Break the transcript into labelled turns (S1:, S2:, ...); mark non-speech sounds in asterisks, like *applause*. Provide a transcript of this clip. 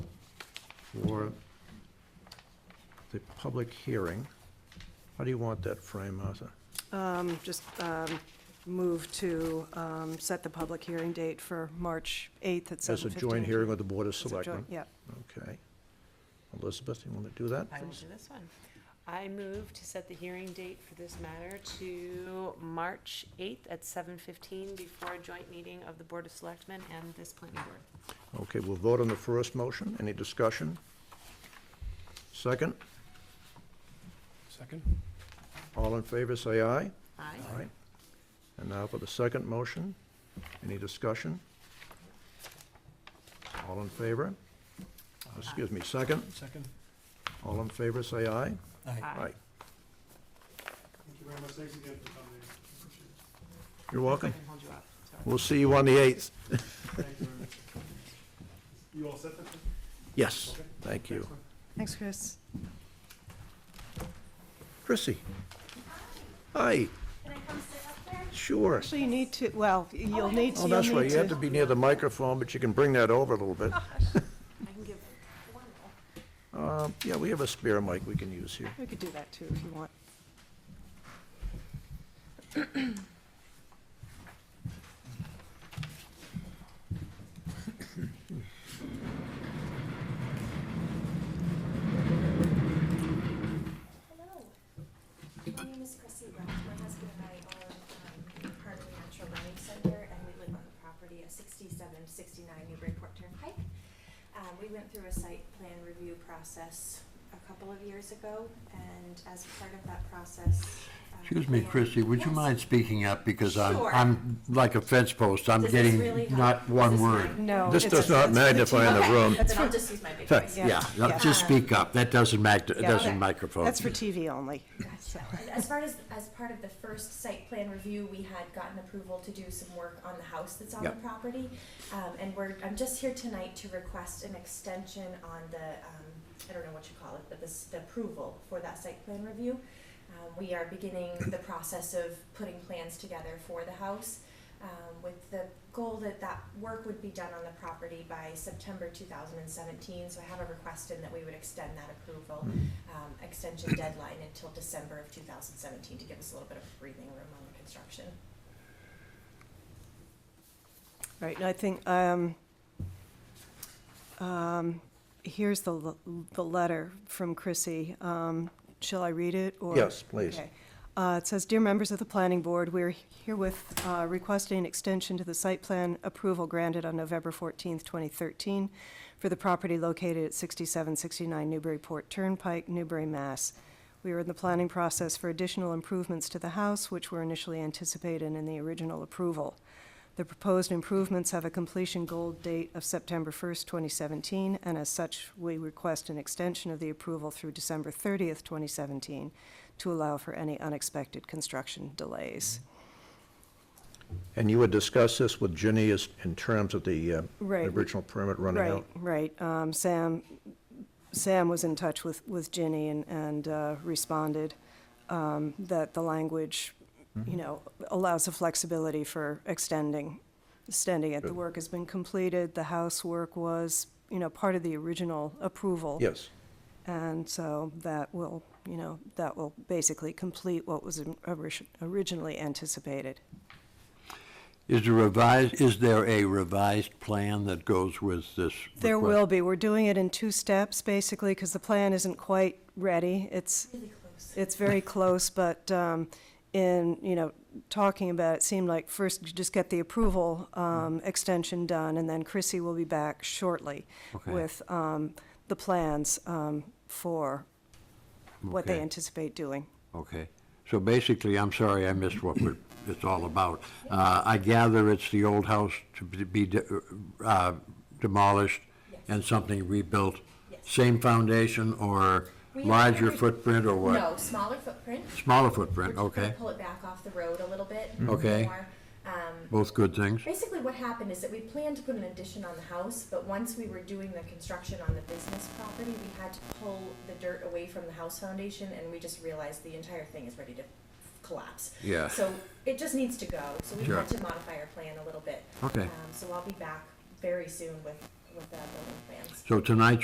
S1: for the public hearing. How do you want that framed, Martha?
S2: Um, Just um, move to um, set the public hearing date for March 8th at 7:15.
S1: As a joint hearing with the Board of
S2: As a joint-
S1: Selectmen?
S2: Yeah,
S1: Okay. Elizabeth, you want to do that,
S3: I will
S1: please?
S3: do this one. I move to set the hearing date for this matter to March 8th at 7:15 before a joint meeting of the Board of Selectmen and this planning board.
S1: Okay, we'll vote on the first motion. Any discussion? Second,
S4: Second?
S1: all in favor, say aye.
S3: Aye.
S1: All right. And now for the second motion. Any discussion? All in favor? Excuse me, second.
S4: Second?
S1: All in favor, say aye.
S3: Aye.
S4: Thank you very much, thanks again for coming in. Appreciate it.
S1: You're
S3: I
S1: welcome.
S3: can hold you up, sorry.
S1: We'll see you on the 8th.
S4: Thank you very much. You all set then?
S1: Yes, thank you.
S4: Excellent.
S2: thanks, Chris.
S1: Chrissy? Hi,
S5: Can I come sit up there?
S1: sure.
S2: So you need to, well, you'll need
S1: Oh,
S2: to, you'll
S1: that's right,
S2: need
S1: you have to
S2: to.
S1: be near the microphone, but you can bring that over a little bit.
S3: I can give one more.
S1: Uh, Yeah, we have a spare mic we can use here.
S2: We could do that too if you want.
S5: Hello. My name is Chrissy Ruff. My husband and I own um, Harbor Natural Learning Center, and we live on the property at 6769 Newburyport Turnpike. Um, We went through a site plan review process a couple of years ago, and as part of that process. um,
S6: Excuse me,
S5: we-
S6: Christie, would you
S5: Yes.
S6: mind speaking up, because I'm,
S5: Sure.
S6: I'm like a fence post, I'm
S5: Does this really
S6: getting
S5: help?
S6: not
S5: Is
S6: one
S5: this
S6: word.
S5: fine?
S2: No.
S1: This
S2: it's-
S1: does not
S2: it's for the
S1: magnify in
S2: TV.
S1: the room.
S5: *laughs* Then I'll just use my big voice.
S2: Yeah,
S6: Yeah,
S2: yeah.
S6: no, just speak up, that doesn't matter,
S2: Yeah.
S6: that doesn't microphone.
S2: That's for TV only.
S5: Gotcha. And As far as, as part of the first site plan review, we had gotten approval to do some work on the house that's on the
S6: Yep.
S5: property. Um, and we're, I'm just here tonight to request an extension on the, um, I don't know what you call it, but this, the approval for that site plan review. Um, we are beginning the process of putting plans together for the house, um, with the goal that that work would be done on the property by September two thousand and seventeen. So I have a request in that we would extend that approval um, extension deadline until December of 2017 to give us a little bit of breathing room on the construction.
S2: Right, and I think, um, um, here's the, l- the letter from Chrissy. Um, shall I read it, or?
S1: Yes, please.
S2: Okay. Uh, it says, "Dear members of the planning board, we're herewith, uh, requesting an extension to the site plan approval granted on November fourteenth, twenty thirteen for the property located at sixty-seven sixty-nine Newburyport Turnpike, Newbury, Mass. We are in the planning process for additional improvements to the house, which were initially anticipated in the original approval. The proposed improvements have a completion goal date of September 1st, 2017, and as such, we request an extension of the approval through December 30th, 2017, to allow for any unexpected construction delays.
S1: And you would discuss this with Ginny as, in terms of the uh,
S2: Right.
S1: original permit running
S2: Right,
S1: out?
S2: right. Um, Sam, Sam was in touch with, with Ginny and, and uh, responded um, that the language,
S1: Mm-hmm.
S2: you know, allows the flexibility for extending, extending it. The
S1: Good.
S2: work has been completed, the house work was, you know, part of the original approval.
S1: Yes,
S2: And so that will, you know, that will basically complete what was orig- originally anticipated.
S6: Is there revised, is there a revised plan that goes with this?
S2: There
S6: request?
S2: will be, we're doing it in two steps, basically, because the plan isn't quite ready. It's,
S5: Really close.
S2: it's
S6: *laughs*
S2: very close, but um, in, you know, talking about it, it seemed like first you just get the approval
S6: Mm-hmm.
S2: um, extension done, and then Chrissy will be back shortly
S6: Okay.
S2: with um, the plans um, for what they
S6: Okay.
S2: anticipate doing.
S6: Okay, so basically, I'm sorry, I missed what we're- it's all about. Uh, I gather it's the old house to be- be de- uh, demolished
S5: Yes.
S6: and something rebuilt?
S5: Yes.
S6: Same foundation or
S5: We have
S6: larger
S5: every-
S6: footprint or what?
S5: No, smaller footprint.
S6: Smaller
S5: We're
S6: footprint,
S5: just gonna
S6: okay, Mm-hmm.
S5: pull it back off the road a little bit.
S6: Okay.
S5: more. Um,
S6: both good things.
S5: Basically, what happened is that we planned to put an addition on the house, but once we were doing the construction on the business property, we had to pull the dirt away from the house foundation, and we just realized the entire thing is ready to collapse.
S6: Yeah.
S5: So it just needs to go, so we
S6: Sure.
S5: had to modify our plan a little bit.
S6: Okay.
S5: Um, So I'll be back very soon with, with the building plans.
S6: So tonight